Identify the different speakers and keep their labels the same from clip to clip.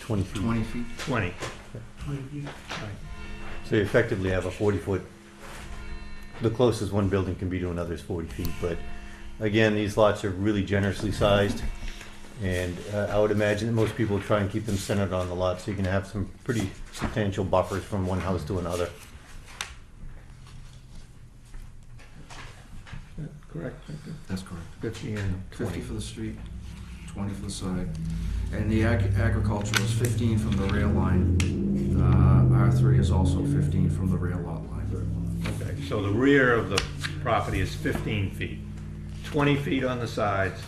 Speaker 1: 20 feet.
Speaker 2: twenty feet?
Speaker 3: 20.
Speaker 1: So you effectively have a 40-foot, the closest one building can be to another is 40 feet. But again, these lots are really generously sized. And uh, I would imagine that most people try and keep them centered on the lot, so you can have some pretty substantial buffers from one house to another.
Speaker 3: Yeah, Correct, I think
Speaker 2: That's correct.
Speaker 3: 50 and
Speaker 2: Fifty
Speaker 3: 20.
Speaker 2: for the street, twenty for the side. And the ag- agricultural is fifteen from the rail line. Uh, R three is also fifteen from the rail lot line.
Speaker 3: Okay, so the rear of the property is 15 feet, 20 feet on the sides,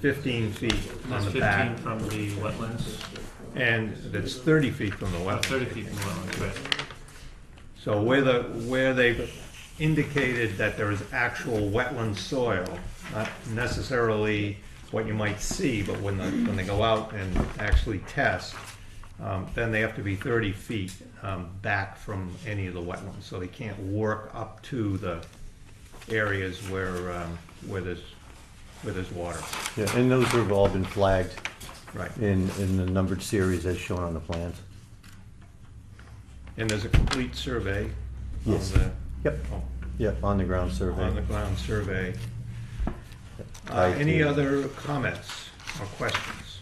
Speaker 3: 15 feet on
Speaker 4: That's
Speaker 3: the back,
Speaker 4: fifteen from the wetlands,
Speaker 3: and that's 30 feet from the
Speaker 4: uh,
Speaker 3: wetland.
Speaker 4: thirty feet from the wetlands, right?
Speaker 3: So where the, where they've indicated that there is actual wetland soil, not necessarily what you might see, but when the, when they go out and actually test, um, then they have to be thirty feet, um, back from any of the wetlands, so they can't work up to the areas where, um, where there's, where there's water,
Speaker 1: Yeah, And those have all been flagged
Speaker 3: right?
Speaker 1: in, in the numbered series as shown on the plans.
Speaker 3: And there's a complete survey
Speaker 1: Yes.
Speaker 3: of the,
Speaker 1: Yep,
Speaker 3: oh,
Speaker 1: yep, on the ground survey.
Speaker 3: on the ground survey. Uh,
Speaker 1: I
Speaker 3: Any
Speaker 1: do.
Speaker 3: other comments or questions?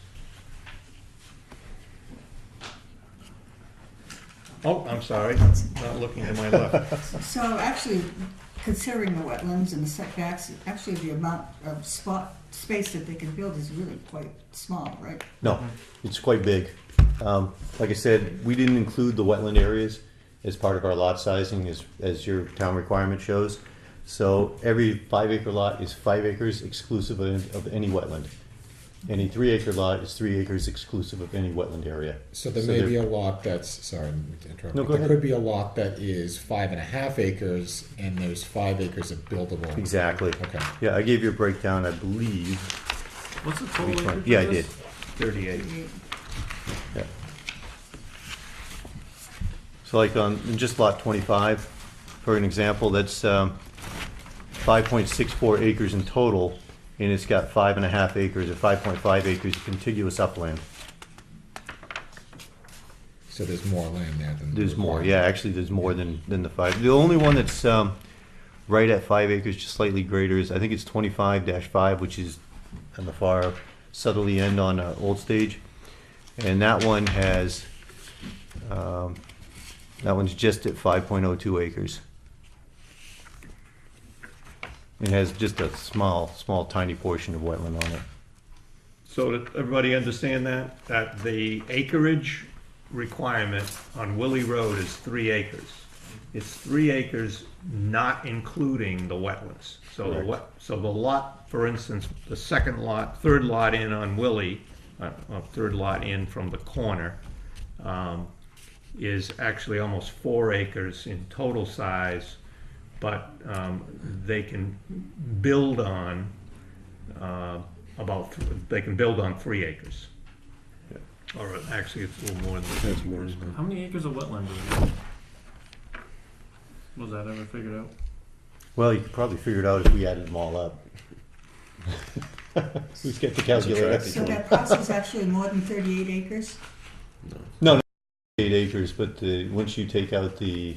Speaker 3: Oh, I'm sorry, not looking to my left.
Speaker 5: So actually, considering the wetlands and the setbacks, actually the amount of spot, space that they can build is really quite small, right?
Speaker 1: No, it's quite big. Um, like I said, we didn't include the wetland areas as part of our lot sizing as, as your town requirement shows. So every five acre lot is five acres exclusive of, of any wetland. Any three acre lot is three acres exclusive of any wetland area.
Speaker 6: So there
Speaker 1: there-
Speaker 6: may be a lot that's, sorry, I'm to interrupt.
Speaker 1: No,
Speaker 6: but
Speaker 1: go
Speaker 6: There
Speaker 1: ahead.
Speaker 6: could be a lot that is five and a half acres, and there's five acres of buildable.
Speaker 1: Exactly.
Speaker 6: Okay.
Speaker 1: Yeah, I gave you a breakdown, I believe.
Speaker 4: What's the total acreage of
Speaker 1: Yeah, I did.
Speaker 4: this?
Speaker 3: 38.
Speaker 1: Yeah. So like on, in just lot twenty-five, for an example, that's, um, five point six four acres in total, and it's got five and a half acres or five point five acres of contiguous upland.
Speaker 6: So there's more land there than.
Speaker 1: There's more, yeah, actually, there's more than, than the five. The only one that's, um, right at five acres, just slightly greater is, I think it's twenty-five five, which is on the far southerly end on, uh, Old Stage. And that one has, um, that one's just at five point oh two acres. It has just a small, small tiny portion of wetland on it.
Speaker 3: So did everybody understand that? That the acreage requirement on Willie Road is three acres. It's three acres not including the wetlands. So the
Speaker 1: Correct.
Speaker 3: wet, so the lot, for instance, the second lot, third lot in on Willie, uh, uh, third lot in from the corner, um, is actually almost four acres in total size, but, um, they can build on uh, about, th- they can build on three acres. Or actually, it's a little more than. That's more than.
Speaker 4: How many acres of wetland is there? Was that ever figured out?
Speaker 1: Well, you could probably figure it out if we added them all up. Who's got the calculator?
Speaker 5: So that parcel is actually more than thirty-eight acres?
Speaker 1: No, not eight acres, but the, once you take out the,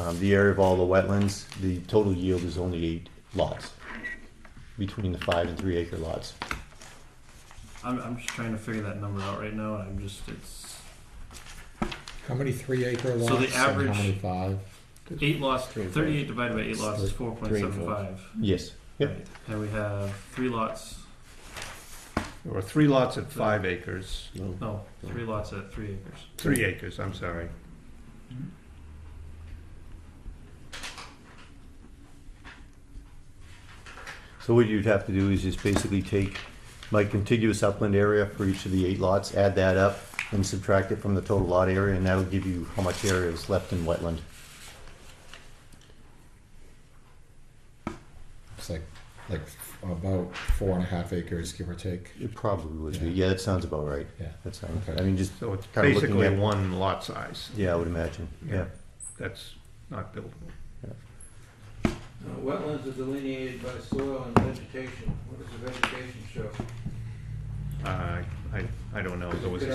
Speaker 1: um, the area of all the wetlands, the total yield is only eight lots. Between the five and three acre lots.
Speaker 4: I'm, I'm just trying to figure that number out right now, and I'm just, it's
Speaker 6: How many three acre lots?
Speaker 4: the
Speaker 6: and
Speaker 4: average-
Speaker 6: How many five?
Speaker 4: eight lots,
Speaker 6: Three and four.
Speaker 4: thirty-eight divided by eight lots is
Speaker 6: Three-
Speaker 4: four point
Speaker 6: three and
Speaker 4: seven
Speaker 6: four.
Speaker 4: five.
Speaker 1: Yes, yep,
Speaker 4: And we have three lots,
Speaker 3: There were three lots at five acres,
Speaker 4: no, three lots at three acres.
Speaker 3: three acres, I'm sorry.
Speaker 1: so what you'd have to do is just basically take my contiguous upland area for each of the eight lots, add that up and subtract it from the total lot area, and that'll give you how much area is left in wetland.
Speaker 6: It's like, like about four and a half acres, give or take.
Speaker 1: It probably would be, yeah, that sounds about right,
Speaker 6: Yeah.
Speaker 1: that sounds,
Speaker 6: Okay.
Speaker 1: I mean, just,
Speaker 3: So it's
Speaker 1: Kinda looking
Speaker 3: basically
Speaker 1: at-
Speaker 3: one lot size.
Speaker 1: yeah, I would imagine, yeah.
Speaker 3: That's not buildable.
Speaker 7: Uh, Wetlands are delineated by soil and vegetation. What does the vegetation show?
Speaker 3: Uh, I, I don't know, there was a
Speaker 7: Could I